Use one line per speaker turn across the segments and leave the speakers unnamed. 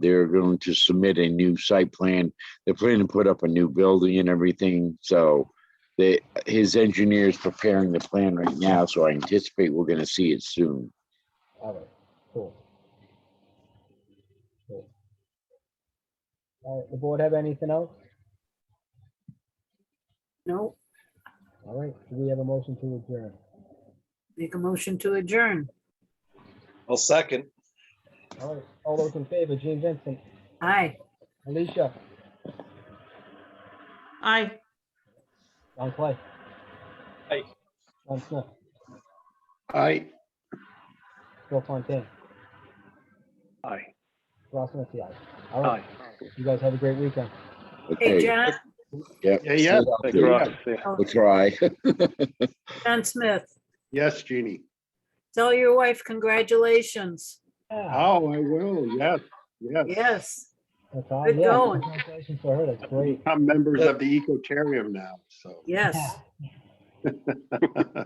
They're going to submit a new site plan. They're planning to put up a new building and everything, so they, his engineer is preparing the plan right now, so I anticipate we're gonna see it soon.
All right, cool. Cool. All right, the board have anything else?
No,
All right, do we have a motion to adjourn?
make a motion to adjourn.
I'll second.
All right, all those in favor, Gene Vincent,
Aye.
Alicia,
Aye.
John Clay.
Aye.
John Smith,
Aye.
Bill Fontaine,
Aye.
Ross Smith, aye. All right, you guys have a great weekend.
Hey,
Okay,
John,
Yeah, yeah. Thank you, Ross. Yeah.
we'll try.
John Smith,
Yes, Jeannie.
tell your wife congratulations.
Yeah,
Oh, I will. Yes, yes.
Yes,
That's all,
Good
yeah,
going.
congratulations for her, that's great.
I'm members of the Ecotarium now, so.
yes.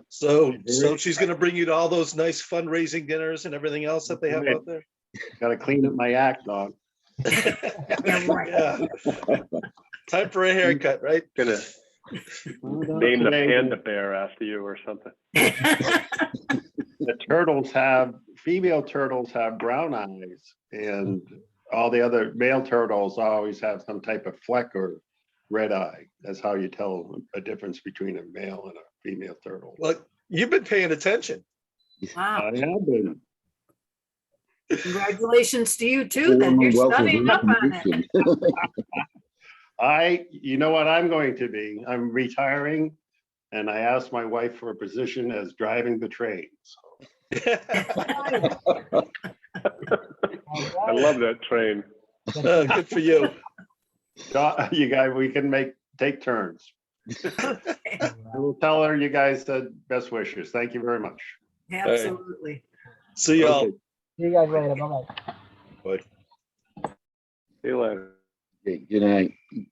So, so she's gonna bring you to all those nice fundraising dinners and everything else that they have out there?
Gotta clean up my act, dog.
Yeah, right.
Yeah. Time for a haircut, right?
Gonna name the panda bear after you or something.
The turtles have, female turtles have brown eyes and all the other male turtles always have some type of fleck or red eye. That's how you tell a difference between a male and a female turtle.
Look, you've been paying attention.
Wow,
I have been.
congratulations to you too, then you're studying up on it.
I, you know what I'm going to be? I'm retiring and I asked my wife for a position as driving the train. So
Uh,
I love that train.
Oh, Good for you.
Doc, You guys, we can make, take turns. I will tell her you guys the best wishes. Thank you very much.
Absolutely.
See y'all.
Okay.
See you guys later, bye-bye.
See you later.
Good night.